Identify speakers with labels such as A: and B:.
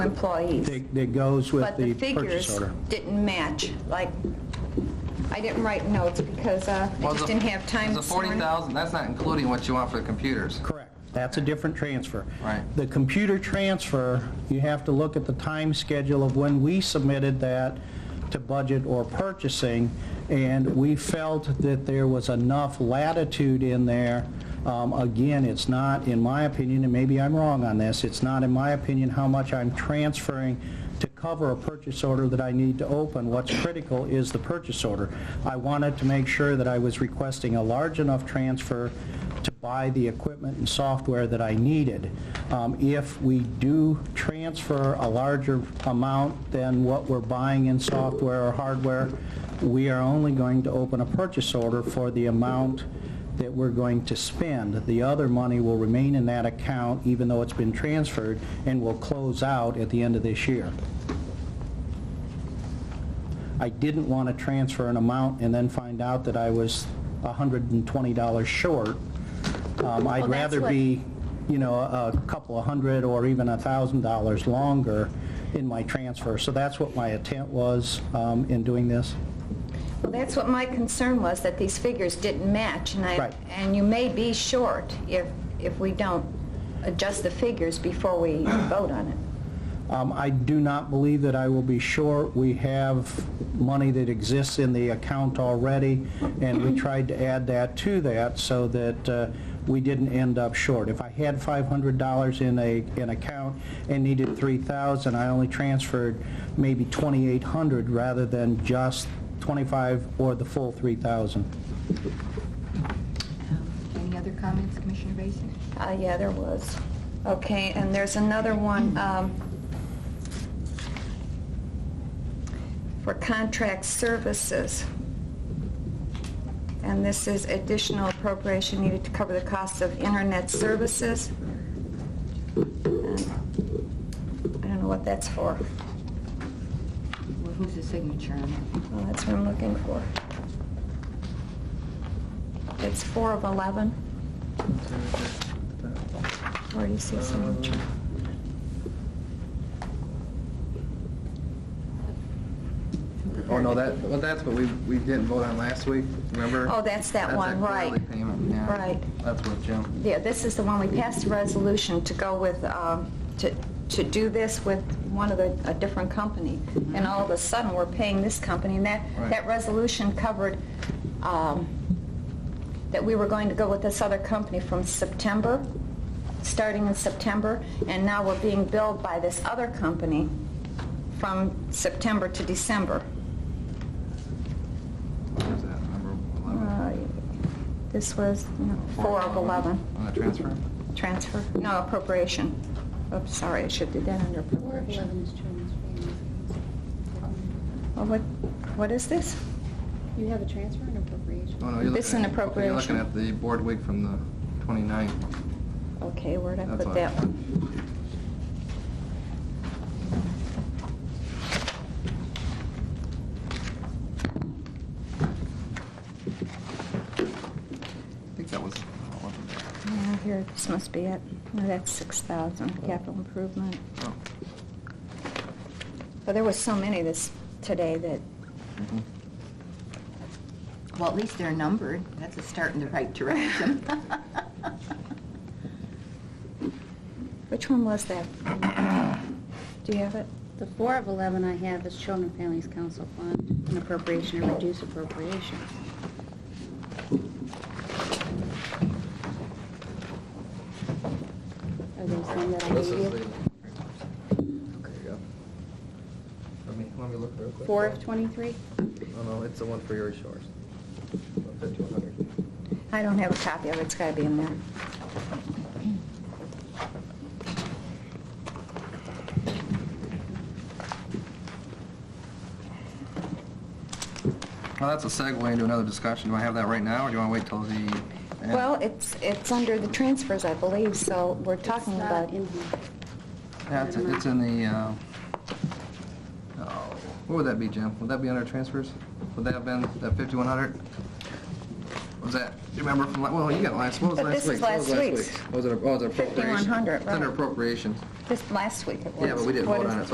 A: employees.
B: that that goes with
A: But the
B: the purchase
A: figures
B: order.
A: didn't match, like, I didn't write notes because uh, I
C: Well,
A: just
C: the-
A: didn't have time
C: The
A: this morning.
C: 40,000, that's not including what you want for the computers.
B: Correct. That's a different transfer.
C: Right.
B: The computer transfer, you have to look at the time schedule of when we submitted that to budget or purchasing, and we felt that there was enough latitude in there. Um, Again, it's not, in my opinion, and maybe I'm wrong on this, it's not, in my opinion, how much I'm transferring to cover a purchase order that I need to open. What's critical is the purchase order. I wanted to make sure that I was requesting a large enough transfer to buy the equipment and software that I needed. Um, If we do transfer a larger amount than what we're buying in software or hardware, we are only going to open a purchase order for the amount that we're going to spend. The other money will remain in that account, even though it's been transferred, and will close out at the end of this year. I didn't want to transfer an amount and then find out that I was $120 short. Um, I'd
D: that's
B: rather
D: what-
B: be, you know, a a couple of hundred or even a $1,000 longer in my transfer. So that's what my intent was um, in doing this.
A: Well, that's what my concern was, that these figures didn't match, and I,
B: Right.
A: and you may be short if, if we don't adjust the figures before we vote on it.
B: Um, I do not believe that I will be short. We have money that exists in the account already, and we tried to add that to that so that uh, we didn't end up short. If I had $500 in a, an account and needed 3,000, I only transferred maybe 2,800 rather than just 25 or the full 3,000.
E: Any other comments, Commissioner Vacy?
A: Uh, yeah, there was. Okay, and there's another one, um, for contract services. And this is additional appropriation needed to cover the costs of internet services. And I don't know what that's for.
E: Well, who's the signature on it?
A: Well, that's what I'm looking for. It's four of 11. Where do you see signature?
C: Oh, no, that, well, that's what we, we didn't vote on last week, remember?
A: Oh, that's that
C: That's
A: one, right.
C: quarterly payment, yeah.
A: Right.
C: That's what Jim,
A: Yeah, this is the one we passed a resolution to go with, um, to to do this with one of the, a different company. And all of a sudden, we're paying this company, and that,
C: Right.
A: that resolution covered um, that we were going to go with this other company from September, starting in September, and now we're being billed by this other company from September to December.
C: what was that, number 11?
A: Uh, This was, you know, Uh, four of 11.
C: On the transfer?
A: Transfer? No, appropriation. Oops, sorry, I should do that under appropriation. Oh, What, what is this?
D: You have a transfer and appropriation?
C: Oh, no, you're
A: This
C: looking
A: is an
C: at- You're
A: appropriation.
C: looking at the board week from the 29th.
A: Okay, where'd I
C: That's
A: put
C: all.
A: that one?
C: I think that was,
A: Yeah, here, this must be it. No, that's 6,000, capital improvement.
C: oh,
A: But there was so many this, today that,
C: mhm.
E: Well, at least they're numbered. That's a start in the right direction.
A: which one was that? Do you have it?
D: The four of 11 I have is Children and Families Council Fund, an appropriation or reduce appropriation. Are those some that I
C: This
D: gave
C: is the...
D: you?
C: There you go. Let me, let me look real quick.
D: Four of 23?
C: No, no, it's the one for yours, yours. 5100.
A: I don't have a copy of it, it's gotta be in there.
C: Well, that's a segue into another discussion. Do I have that right now, or do you want to wait till the end?
A: Well, it's, it's under the transfers, I believe, so we're talking
D: It's uh, not
A: about...
D: in here.
C: Yeah, it's, it's in the, uh, oh, what would that be, Jim? Would that be under transfers? Would that have been, that 5100? Was that, do you remember from, la- well, you got last, what was
A: But this
C: last
A: is
C: week? What was
A: last
C: last
A: week's.
C: week? Was it, oh, it was appropriation?
A: 5100,
C: It's under
A: right.
C: appropriations. Just last week it was.
A: Yeah, but we didn't
C: What
A: vote
C: is
A: on
C: it?
A: it, so